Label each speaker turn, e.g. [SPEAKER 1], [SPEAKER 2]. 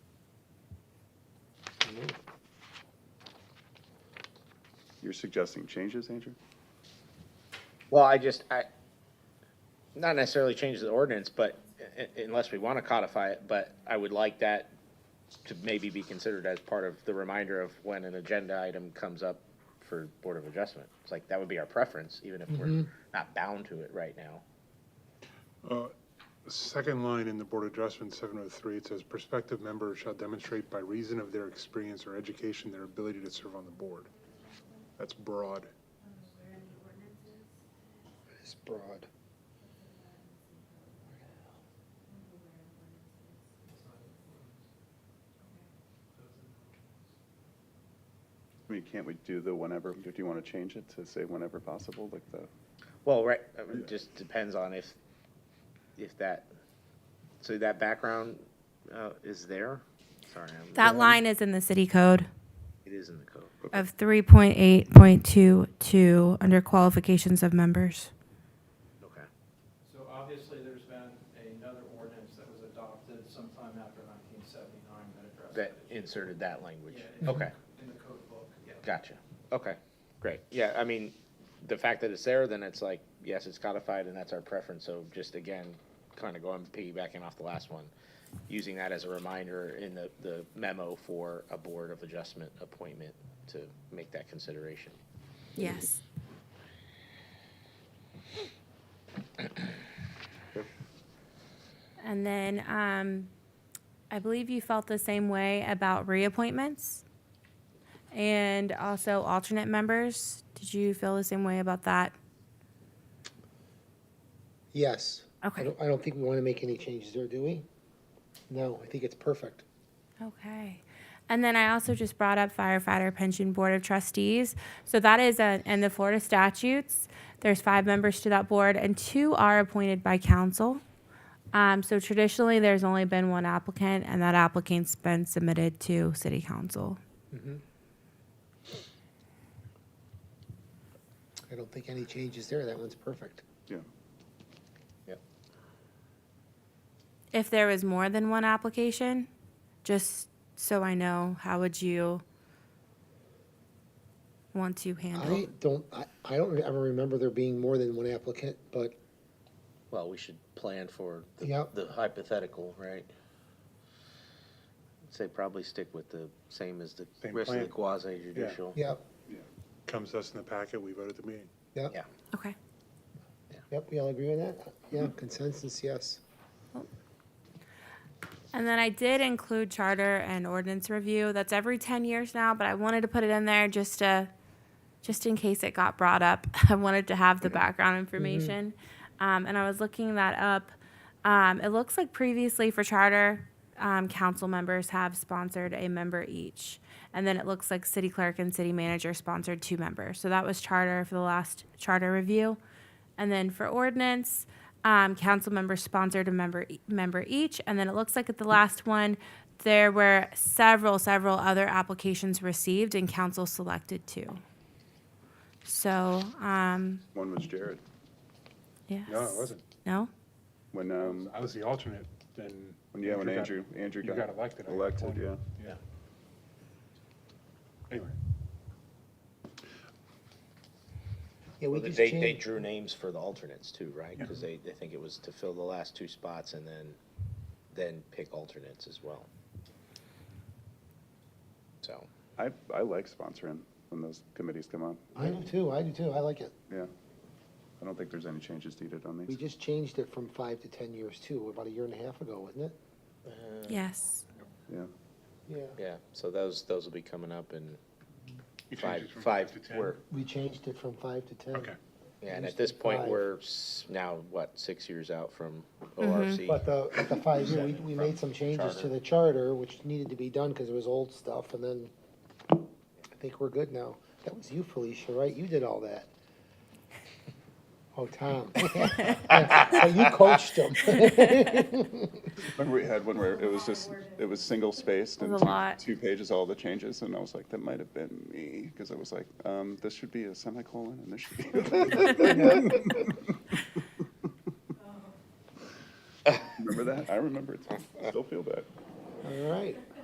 [SPEAKER 1] you're suggesting changes, Andrew?
[SPEAKER 2] Well, I just, I, not necessarily change the ordinance, but u- u- unless we want to codify it, but I would like that to maybe be considered as part of the reminder of when an agenda item comes up for Board of Adjustment. It's like, that would be our preference, even if we're not bound to it right now.
[SPEAKER 3] Second line in the Board Adjustment 703, it says prospective members shall demonstrate by reason of their experience or education their ability to serve on the board. That's broad.
[SPEAKER 4] It's broad.
[SPEAKER 1] I mean, can't we do the whenever, do you want to change it to say whenever possible, like the,
[SPEAKER 2] Well, right, I mean, it just depends on if, if that, so that background, uh, is there? Sorry, I'm-
[SPEAKER 5] That line is in the city code
[SPEAKER 2] it is in the code.
[SPEAKER 5] of three point eight point two two under qualifications of members.
[SPEAKER 2] Okay.
[SPEAKER 6] So obviously, there's been another ordinance that was adopted sometime after 1979 that
[SPEAKER 2] That
[SPEAKER 6] addressed that issue.
[SPEAKER 2] inserted that language.
[SPEAKER 6] Yeah, in-
[SPEAKER 2] Okay.
[SPEAKER 6] In the code book, yeah.
[SPEAKER 2] Gotcha. Okay, great. Yeah, I mean, the fact that it's there, then it's like, yes, it's codified and that's our preference. So just again, kind of going piggybacking off the last one, using that as a reminder in the, the memo for a board of adjustment appointment to make that consideration.
[SPEAKER 5] Yes. And then, um, I believe you felt the same way about reappointments and also alternate members. Did you feel the same way about that?
[SPEAKER 4] Yes. I
[SPEAKER 5] Okay.
[SPEAKER 4] don't, I don't think we want to make any changes there, do we? No, I think it's perfect.
[SPEAKER 5] Okay. And then I also just brought up firefighter pension board of trustees. So that is a, in the Florida statutes, there's five members to that board and two are appointed by council. Um, so traditionally, there's only been one applicant and that applicant's been submitted to city council.
[SPEAKER 4] I don't think any changes there. That one's perfect.
[SPEAKER 1] yeah,
[SPEAKER 5] If there was more than one application, just so I know, how would you want to handle?
[SPEAKER 4] I don't, I, I don't ever remember there being more than one applicant, but
[SPEAKER 2] Well, we should plan for the-
[SPEAKER 4] Yep.
[SPEAKER 2] the hypothetical, right? Say probably stick with the same as the
[SPEAKER 3] Same
[SPEAKER 2] rest of the
[SPEAKER 3] plan.
[SPEAKER 2] quasi judicial.
[SPEAKER 4] yeah,
[SPEAKER 3] Comes to us in the packet, we vote at the meeting.
[SPEAKER 4] yeah,
[SPEAKER 2] Yeah.
[SPEAKER 5] Okay.
[SPEAKER 4] yep, we all agree on that? Yeah, consensus, yes.
[SPEAKER 5] And then I did include charter and ordinance review. That's every ten years now, but I wanted to put it in there just to, just in case it got brought up. I wanted to have the background information. Um, and I was looking that up. Um, it looks like previously for charter, um, council members have sponsored a member each. And then it looks like city clerk and city manager sponsored two members. So that was charter for the last charter review. And then for ordinance, um, council members sponsored a member, e, member each. And then it looks like at the last one, there were several, several other applications received and council selected two. So, um,
[SPEAKER 1] one was Jared,
[SPEAKER 5] yes.
[SPEAKER 3] No, it wasn't.
[SPEAKER 5] No?
[SPEAKER 1] when, um,
[SPEAKER 3] I was the alternate, then.
[SPEAKER 1] when, yeah, when
[SPEAKER 3] got-
[SPEAKER 1] Andrew, Andrew
[SPEAKER 3] you
[SPEAKER 1] got.
[SPEAKER 3] got elected, I got
[SPEAKER 1] Elected,
[SPEAKER 3] appointed.
[SPEAKER 1] yeah.
[SPEAKER 3] Yeah. Anyway,
[SPEAKER 4] Yeah, we
[SPEAKER 2] Well,
[SPEAKER 4] just
[SPEAKER 2] They, they
[SPEAKER 4] changed,
[SPEAKER 2] drew names for the alternates too, right? Because they, they think it was to fill the last two spots and then, then pick alternates as well. So,
[SPEAKER 1] I, I like sponsoring when those committees come up,
[SPEAKER 4] I do too, I do too, I like it.
[SPEAKER 1] yeah. I don't think there's any changes needed on
[SPEAKER 4] We
[SPEAKER 1] these.
[SPEAKER 4] just changed it from five to 10 years too, about a year and a half ago, wasn't it?
[SPEAKER 5] Yes.
[SPEAKER 1] Yeah,
[SPEAKER 4] Yeah.
[SPEAKER 2] yeah, so those, those will be coming up in
[SPEAKER 3] You changed
[SPEAKER 2] five,
[SPEAKER 3] it from
[SPEAKER 2] five,
[SPEAKER 3] to 10?
[SPEAKER 2] we're,
[SPEAKER 4] We changed it from five to 10.
[SPEAKER 3] okay.
[SPEAKER 2] yeah, and
[SPEAKER 4] Used
[SPEAKER 2] at this
[SPEAKER 4] to be
[SPEAKER 2] point,
[SPEAKER 4] five.
[SPEAKER 2] we're s- now, what, six years out from ORC?
[SPEAKER 4] But the, but the five year, we, we made some changes to the charter, which needed to be done because it was old stuff, and then I think we're good now. That was you, Felicia, right? You did all that. Oh, Tom. But You coached him.
[SPEAKER 1] remember we had one where it was just, it was single spaced
[SPEAKER 5] It
[SPEAKER 1] and
[SPEAKER 5] was a lot.
[SPEAKER 1] two, two pages, all the changes, and I was like, that might have been me, because I was like, um, this should be a semicolon and this should be. Remember that? I remember it, I still feel bad.
[SPEAKER 4] All right.